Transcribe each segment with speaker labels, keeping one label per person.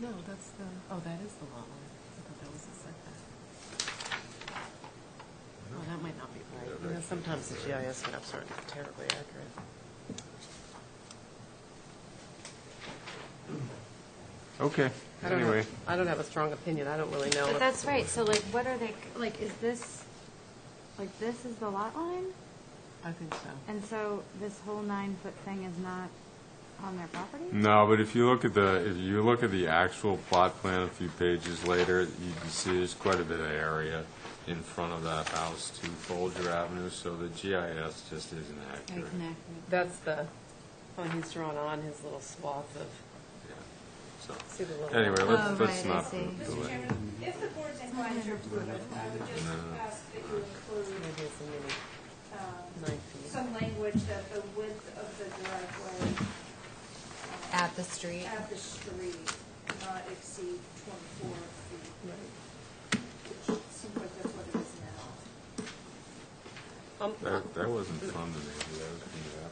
Speaker 1: No, that's the, oh, that is the lot line. I thought that was the setback. Oh, that might not be right. You know, sometimes the GIS maps aren't terribly accurate.
Speaker 2: Okay,
Speaker 1: I don't
Speaker 2: anyway.
Speaker 1: have, I don't have a strong opinion. I don't really know.
Speaker 3: But that's right, so like, what are they, like, is this, like, this is the lot line?
Speaker 1: I think so.
Speaker 3: And so this whole nine-foot thing is not on their property?
Speaker 2: No, but if you look at the, if you look at the actual plot plan a few pages later, you can see there's quite a bit of area in front of that house to Folger Avenue, so the GIS just isn't accurate.
Speaker 1: That's the, oh, he's drawn on his little swath of,
Speaker 2: Yeah, so.
Speaker 1: see the little. Um,
Speaker 2: Anyway,
Speaker 3: Oh,
Speaker 2: let's, let's
Speaker 3: right, I
Speaker 2: not
Speaker 3: see.
Speaker 2: delay.
Speaker 4: Mr. Chairman, if the board's inclined to approve it, I would just ask that you
Speaker 1: Maybe
Speaker 4: include
Speaker 1: it's a mini
Speaker 4: um,
Speaker 1: nine feet.
Speaker 4: some language that the width of the driveway uh,
Speaker 3: At the street?
Speaker 4: at the street not exceed 24 feet,
Speaker 1: Right.
Speaker 4: which seems like that's what it is now.
Speaker 1: Um,
Speaker 2: That, that wasn't fun to me, that was, yeah.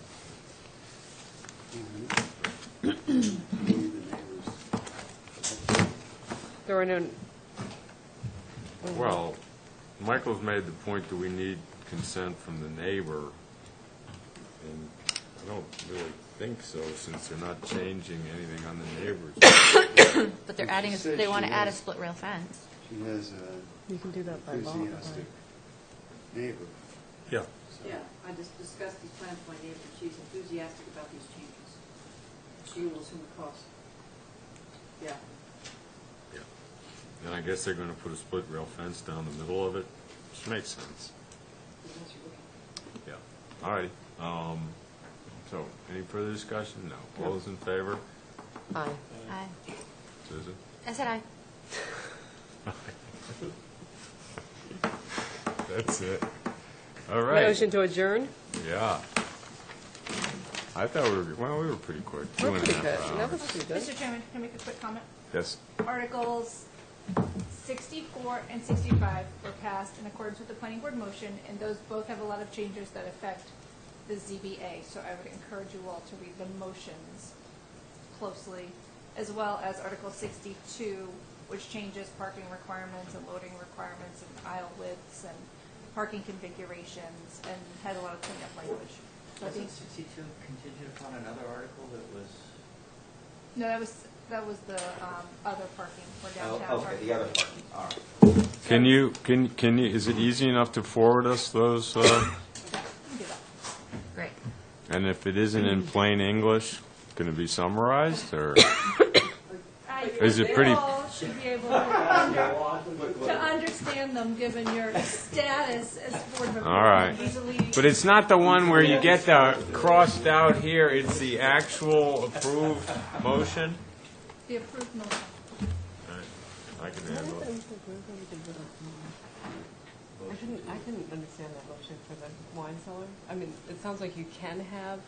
Speaker 1: There were no,
Speaker 2: Well, Michael's made the point that we need consent from the neighbor, and I don't really think so, since they're not changing anything on the neighbor's.
Speaker 5: But they're adding, a-
Speaker 6: She said
Speaker 5: they want
Speaker 6: she
Speaker 5: to add a
Speaker 6: was-
Speaker 5: split rail fence.
Speaker 6: She has
Speaker 1: you can do
Speaker 6: an
Speaker 1: that by law. right?
Speaker 6: enthusiastic neighbor.
Speaker 2: Yeah.
Speaker 7: Yeah, I just discussed these plans with my neighbor, she's enthusiastic about these changes. She will assume the cost. Yeah,
Speaker 2: And I guess they're gonna put a split rail fence down the middle of it, which makes sense.
Speaker 7: because that's your looking.
Speaker 2: Yeah. All right, um, so, any further discussion? No. All those in favor?
Speaker 1: Aye.
Speaker 5: Aye.
Speaker 2: Susan?
Speaker 5: I said aye.
Speaker 2: That's it. All right.
Speaker 1: Motion to adjourn?
Speaker 2: Yeah. I thought we were, well, we were pretty quick. Two
Speaker 1: We're
Speaker 2: and a
Speaker 1: pretty
Speaker 2: half
Speaker 1: good. That was
Speaker 2: hours.
Speaker 1: pretty good.
Speaker 4: Mr. Chairman, can I make a quick comment?
Speaker 2: Yes.
Speaker 4: Articles 64 and 65 were passed in accordance with the planning board motion, and those both have a lot of changes that affect the ZBA, so I would encourage you all to read the motions closely, as well as Article 62, which changes parking requirements and loading requirements and aisle widths and parking configurations, and had a lot of cleanup language. So I think,
Speaker 8: Wasn't sixty-two contingent upon another article that was?
Speaker 4: no, that was, that was the um, other parking, for downtown
Speaker 8: Oh,
Speaker 4: parking.
Speaker 8: okay, the other part, all right.
Speaker 2: Can you, can, can you, is it easy enough to forward us those? uh,
Speaker 4: Yeah, you can do that.
Speaker 5: Great.
Speaker 2: And if it isn't in plain English, can it be summarized or? Is it pretty-
Speaker 4: You all should be able to under- to understand them, given your status as board member.
Speaker 2: All right.
Speaker 4: Easily,
Speaker 2: But it's not the one where you get the crossed out here, it's the actual approved motion?
Speaker 4: the approved motion.
Speaker 2: I can handle it.
Speaker 1: I couldn't, I couldn't understand that motion for the wine cellar. I mean, it sounds like you can have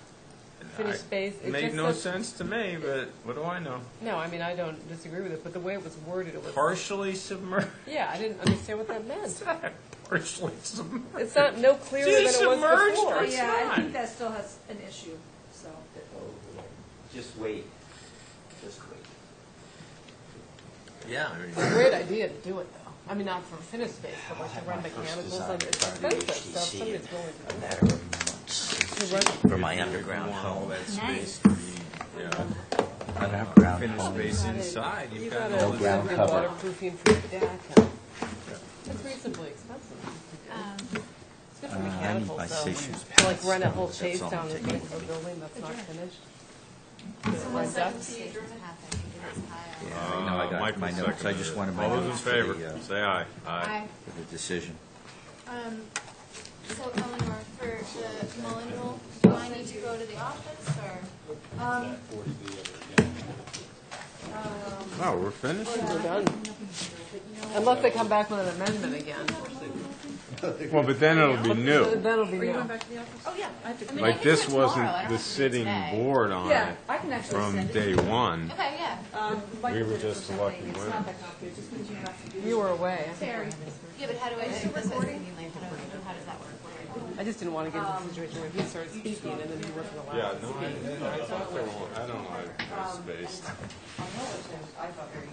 Speaker 1: finished space. It
Speaker 2: Made
Speaker 1: just
Speaker 2: no
Speaker 1: says-
Speaker 2: sense to me, but what do I know?
Speaker 1: No, I mean, I don't disagree with it, but the way it was worded, it was.
Speaker 2: Partially submerged,
Speaker 1: Yeah, I didn't understand what that meant.
Speaker 2: partially submerged.
Speaker 1: It's not, no clearer than it was
Speaker 2: Submerged
Speaker 1: before.
Speaker 2: or-
Speaker 4: But
Speaker 2: it's
Speaker 4: yeah, I
Speaker 2: not.
Speaker 4: think that still has an issue, so.
Speaker 8: Just wait, just wait.
Speaker 2: Yeah, I mean.
Speaker 1: It's a great idea to do it, though. I mean, not for finished space, but like to
Speaker 8: had
Speaker 1: run
Speaker 8: my first
Speaker 1: mechanicals,
Speaker 8: design
Speaker 1: like, it's
Speaker 8: in front of the
Speaker 1: expensive, so if
Speaker 8: HTC
Speaker 1: somebody's
Speaker 8: and-
Speaker 1: willing to
Speaker 8: A
Speaker 1: do
Speaker 8: matter of
Speaker 1: it.
Speaker 8: months
Speaker 1: To run-
Speaker 8: for my underground home.
Speaker 3: Nice.
Speaker 2: Yeah.
Speaker 8: Underground
Speaker 2: Finished
Speaker 8: home.
Speaker 2: space inside,
Speaker 1: You
Speaker 2: you've got
Speaker 1: gotta
Speaker 2: all
Speaker 1: have
Speaker 2: this.
Speaker 8: ground
Speaker 1: good
Speaker 8: cover.
Speaker 1: waterproofing for your deck. and- It's reasonably expensive.
Speaker 3: Um,
Speaker 1: It's good for
Speaker 8: Uh, I need my
Speaker 1: mechanicals, though.
Speaker 8: station's
Speaker 1: To like run a
Speaker 8: pants,
Speaker 1: whole
Speaker 8: that's
Speaker 1: chase
Speaker 8: all
Speaker 1: down
Speaker 8: I'm
Speaker 1: with
Speaker 8: taking
Speaker 1: like a building that's not finished.
Speaker 3: Someone
Speaker 1: Like
Speaker 3: said
Speaker 1: ducts.
Speaker 3: the state doesn't have that, because it's high.
Speaker 8: Yeah, I know,
Speaker 2: Uh,
Speaker 8: I got my notes, I just wanted my
Speaker 2: All those in
Speaker 8: notes for
Speaker 2: favor,
Speaker 8: the, uh,
Speaker 2: say aye.
Speaker 3: Aye.
Speaker 8: for the decision.
Speaker 9: Um, so Eleanor, for the Mullen rule, do I need to go to the office or?
Speaker 4: Um,
Speaker 2: Oh, we're finished?
Speaker 1: We're done. Unless they come back with an amendment again.
Speaker 2: Well, but then it'll be new.
Speaker 1: That'll be new.
Speaker 3: back to the office?
Speaker 4: Oh, yeah, I have to.
Speaker 3: I mean, I
Speaker 2: Like,
Speaker 3: can
Speaker 2: this
Speaker 3: do it tomorrow. I
Speaker 2: wasn't
Speaker 3: don't
Speaker 2: the
Speaker 3: have to do it
Speaker 2: sitting
Speaker 3: today.
Speaker 2: board on
Speaker 4: Yeah,
Speaker 2: it
Speaker 4: I can actually
Speaker 2: from
Speaker 4: send it.
Speaker 2: day one.
Speaker 3: Okay, yeah.
Speaker 4: Um, Mike
Speaker 2: We were
Speaker 4: did it
Speaker 2: just
Speaker 4: for
Speaker 2: the
Speaker 4: something.
Speaker 2: lucky
Speaker 4: It's
Speaker 2: ones.
Speaker 4: not that complicated, just means you have to do.
Speaker 1: You were away. I think.
Speaker 10: Fair.
Speaker 11: Yeah, but how do I,
Speaker 3: This is-
Speaker 11: how do I-
Speaker 3: like, how do- how does that work? What do I do?
Speaker 1: I just didn't want to get into a situation where he started speaking and then you were for the last.
Speaker 2: Yeah, no, I, I thought there were, I don't know, I I spaced.
Speaker 4: I know what it says, I thought very